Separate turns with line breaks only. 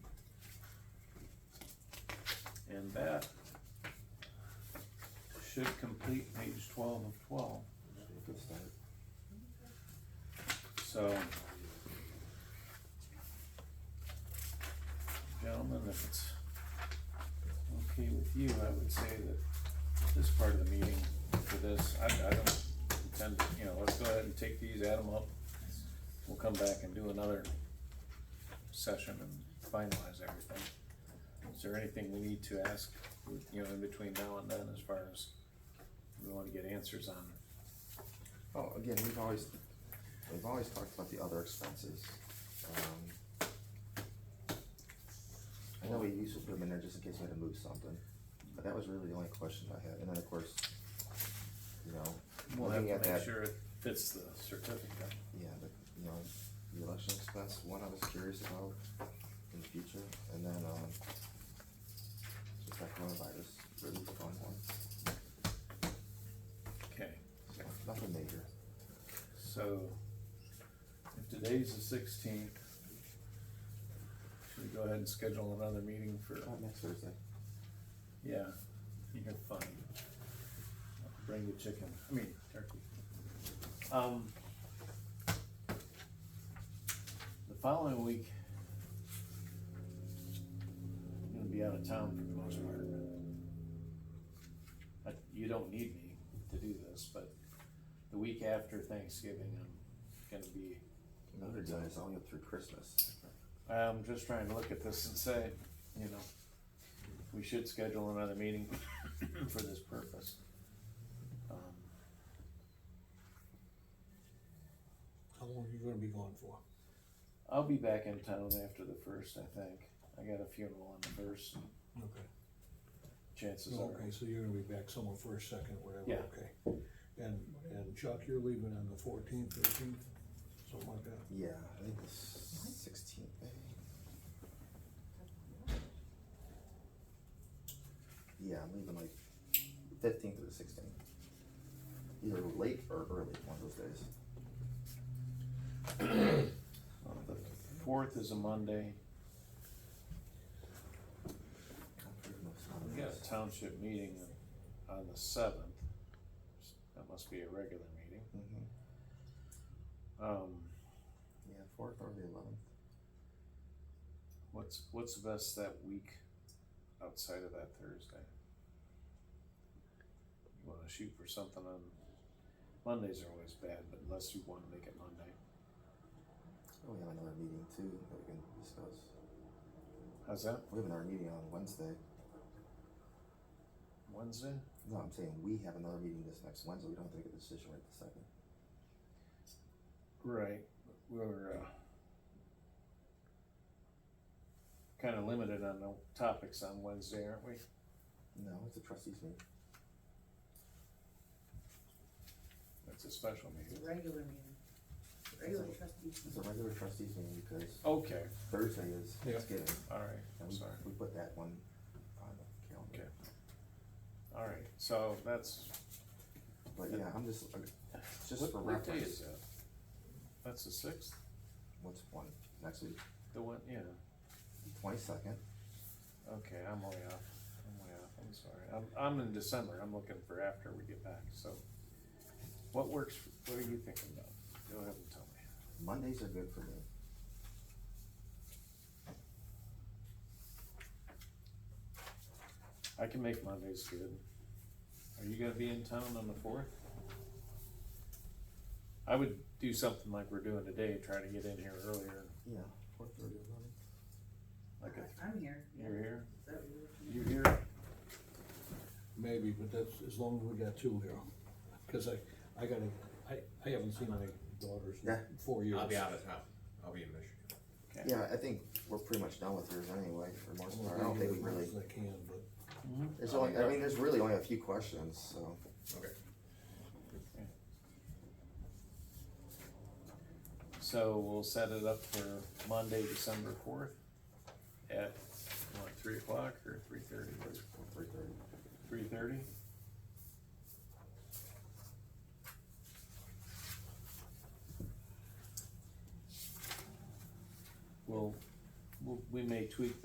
that should complete page twelve of twelve,
Good start.
so. Gentlemen, if it's okay with you, I would say that this part of the meeting for this, I, I don't intend, to- you know, let's go ahead and take these, add them up. We'll come back and do another session and finalize everything. Is there anything we need to ask, you know, in between now and then as far as we wanna get answers on?
Oh, again, we've always, we've always talked about the other expenses. Um, I know we used to put them in there just in case we had to move something, but that was really the only question I had, and then of course, you know,
We'll have
looking
to
at that,
make sure it fits the certificate.
yeah, the, you know, the election expense, one I was curious about in the future, and then, um, just that coronavirus relief fund one,
Okay,
so nothing major.
so if today's the sixteenth, should we go ahead and schedule another meeting for,
Oh, next Thursday.
yeah, you're fine. Bring the chicken, I mean turkey. Um, the following week, I'm gonna be out of town for the most part. I- You don't need me to do this, but the week after Thanksgiving, I'm gonna be,
Another day, it's only up through Christmas.
I'm just trying to look at this and say, you know, we should schedule another meeting for this purpose. Um,
How long are you gonna be gone for?
I'll be back in town after the first, I think. I got a funeral on the first, and
Okay.
chances are.
Okay, so you're gonna be back somewhere for a second, whatever,
Yeah.
okay. And, and Chuck, you're leaving on the fourteenth, thirteenth, something like that?
Yeah, I think it's sixteenth, Yeah, I'm leaving like fifteenth or the sixteenth. Either late or early, one of those days. Oh,
Well, The fourth is a Monday.
I'm pretty much out of
We got
those.
a township meeting on the seventh. That must be a regular meeting.
Mhm.
Um,
Yeah, fourth or the eleventh.
what's, what's the best that week outside of that Thursday? You wanna shoot for something on, Mondays are always bad, but unless you wanna make it Monday.
Oh, we have another meeting too that we can discuss.
How's that?
We have another meeting on Wednesday.
Wednesday?
No, I'm saying we have another meeting this next Wednesday. We don't have to make a decision right this second.
Right, we're, uh, kinda limited on the topics on Wednesday, aren't we?
No, it's a trustees meeting.
It's a special
It's
meeting.
a regular meeting, regular trustees.
It's a regular trustees meeting because
Okay,
Thursday is
Yeah.
Thanksgiving.
alright,
And
I'm
we,
sorry.
we put that one on the
Okay.
calendar.
Alright, so that's,
But yeah, I'm just, uh, just
what,
for
what day is
reference,
that? That's the sixth,
what's one, next week,
the one, yeah,
twenty-second,
okay, I'm way off, I'm way off, I'm sorry, I'm, I'm in December, I'm looking for after we get back, so. What works, what are you thinking about? Go ahead and tell me.
Mondays are good for me.
I can make Mondays good. Are you gonna be in town on the fourth? I would do something like we're doing today, try to get in here earlier,
Yeah. Four thirty, eleven.
like a,
I'm here.
you're here,
Is that what you're looking
you here?
Maybe, but that's as long as we got two here, cause I, I gotta, I, I haven't seen my daughters
Yeah.
in four years.
I'll be out of town. I'll be in Michigan.
Okay.
Yeah, I think we're pretty much done with yours anyway, for the most part, I don't think we really,
As I can, but,
there's only, I mean, there's really only a few questions, so.
Okay.
So we'll set it up for Monday, December fourth at, what, three o'clock or three thirty,
Three thirty.
three thirty? Well, we'll- we may tweak